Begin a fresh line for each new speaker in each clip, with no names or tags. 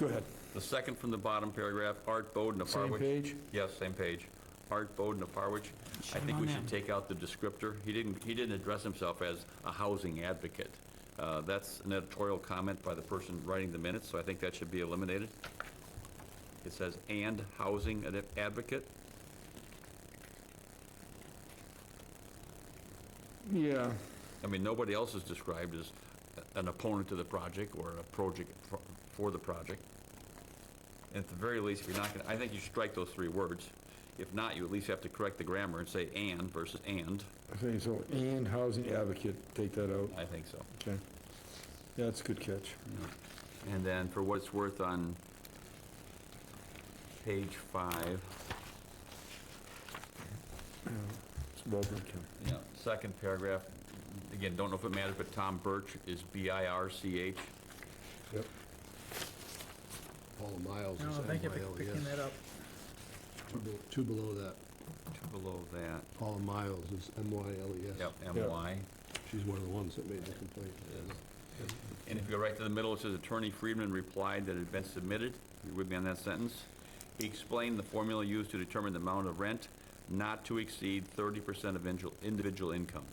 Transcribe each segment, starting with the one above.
Go ahead.
The second from the bottom paragraph, Art Bowden of
Same
Harwich.
page?
Yes, same page. Art Bowden of Harwich. I
Should
think
on
we
there.
should take out the descriptor. He didn't, he didn't address himself as a housing advocate. Uh, That's an editorial comment by the person writing the minutes, so I think that should be eliminated. It says, "and housing ad- advocate."
Yeah,
I mean, nobody else is described as an opponent to the project or a project for- for the project. And At the very least, if you're not going, to I think you strike those three words. If not, you at least have to correct the grammar and say "and" versus "and."
okay, so and housing advocate, take that out,
I think so.
okay. Yeah, that's a good catch.
And then for what it's worth on page five,
It's well done, Ken.
you know, second paragraph, again, don't know if it matters, but Tom Birch is B-I-R-C-H.
Yep.
Paul Miles is
No, Oh, thank you for picking
M-I-L-E-S.
that up.
E Two be- Two below that,
Below that,
Paul Miles is M-Y-L-E-S.
yep, M-Y.
E She's one of the ones that made the complaint.
And if you go right to the middle, it says Attorney Friedman replied that it had been submitted, you would be on that sentence. He explained the formula used to determine the amount of rent not to exceed 30% of individual- individual income.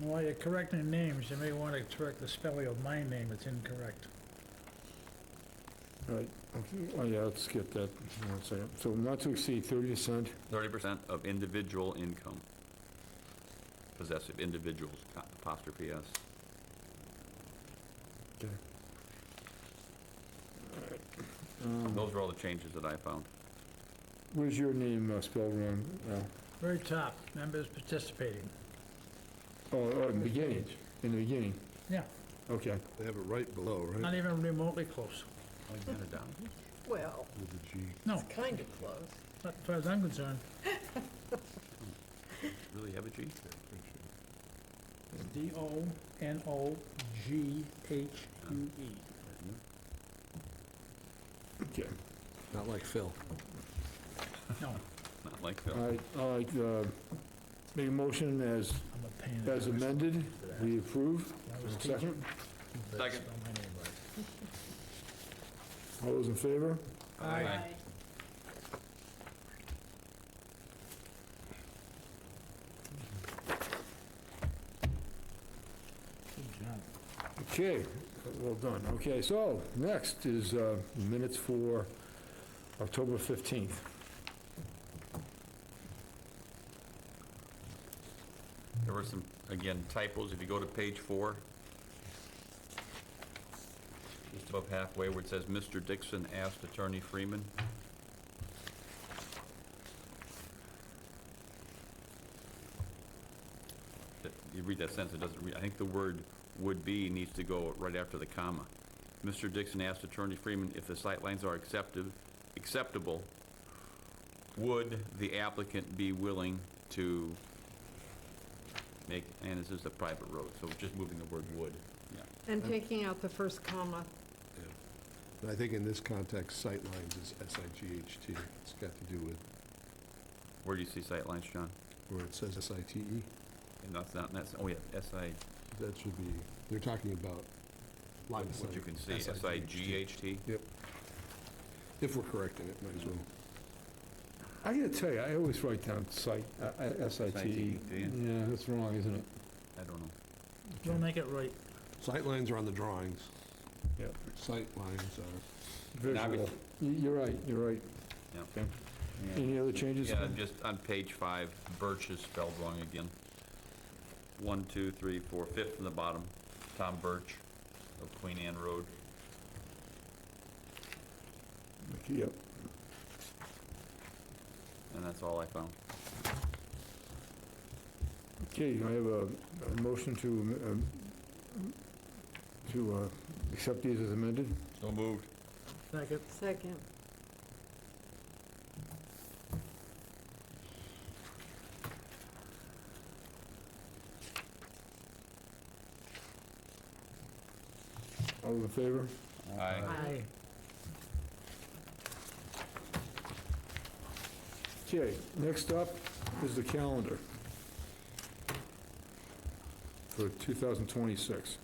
While you're correcting names, you may want to correct the spelling of my name, it's incorrect.
All right, okay, oh, yeah, let's get that, one second. So not to exceed 30%,
30% of individual income. Possessive individuals, apostrophe S.
okay.
Those are all the changes that I found.
Um, Where's your name uh, spelled wrong? Uh, Al?
Very top, members participating.
Oh, oh, in the beginning, in the beginning,
Yeah,
okay.
They have it right below, right?
not even remotely close.
Well,
With the G.
No,
kind of close.
not as far as I'm concerned.
Really have a G?
D-O-N-O-G-H-U-E.
Okay.
Not like Phil.
No,
Not like
All
Phil.
right, all right, uh, make a motion as,
I'm a pain in the
as
ass.
amended, we approve.
I was teaching.
Second,
but
Second.
spell my name right.
all those in favor?
Aye. Good job.
Okay, well done. Okay, so, next is uh, minutes for October 15th.
There were some, again, typos. If you go to page four, just above halfway where it says, "Mr. Dixon asked Attorney Freeman." That- You read that sentence, it doesn't read, I think the word "would be" needs to go right after the comma. Mr. Dixon asked Attorney Freeman if the sightlines are accepted, acceptable. Would the applicant be willing to make, and this is a private road, so just moving the word "would." Yeah.
And taking out the first comma.
And I think in this context, sightlines is S-I-G-H-T. It's got to do with
Where do you see sight lines, John?
where it says S-I-T-E.
And that's not, that's, oh yeah, S-I,
E. That should be, they're talking about line of sight.
what you can see,
S-I-G-H-T.
S-I-G-H-T.
Yep. If we're correcting it, might as well.
I gotta tell you, I always write down site, uh, uh, S-I-T-E.
Site, do
Yeah,
you?
that's wrong, isn't it?
I don't know.
We'll make it right.
Sightlines are on the drawings.
Yep.
Sightlines are,
Now we-
Visual. Y- You're right, you're right.
Yep.
Okay. Any other changes?
Yeah, and just on page five, Birch is spelled wrong again. One, two, three, four, fifth from the bottom, Tom Birch of Queen Anne Road.
Okay, Yep.
And that's all I found.
Okay, I have a a motion to, um, to uh, accept these as amended.
So moved.
Second.
Second.
All in favor?
Aye.
Aye.
Okay, next up is the calendar for 2026.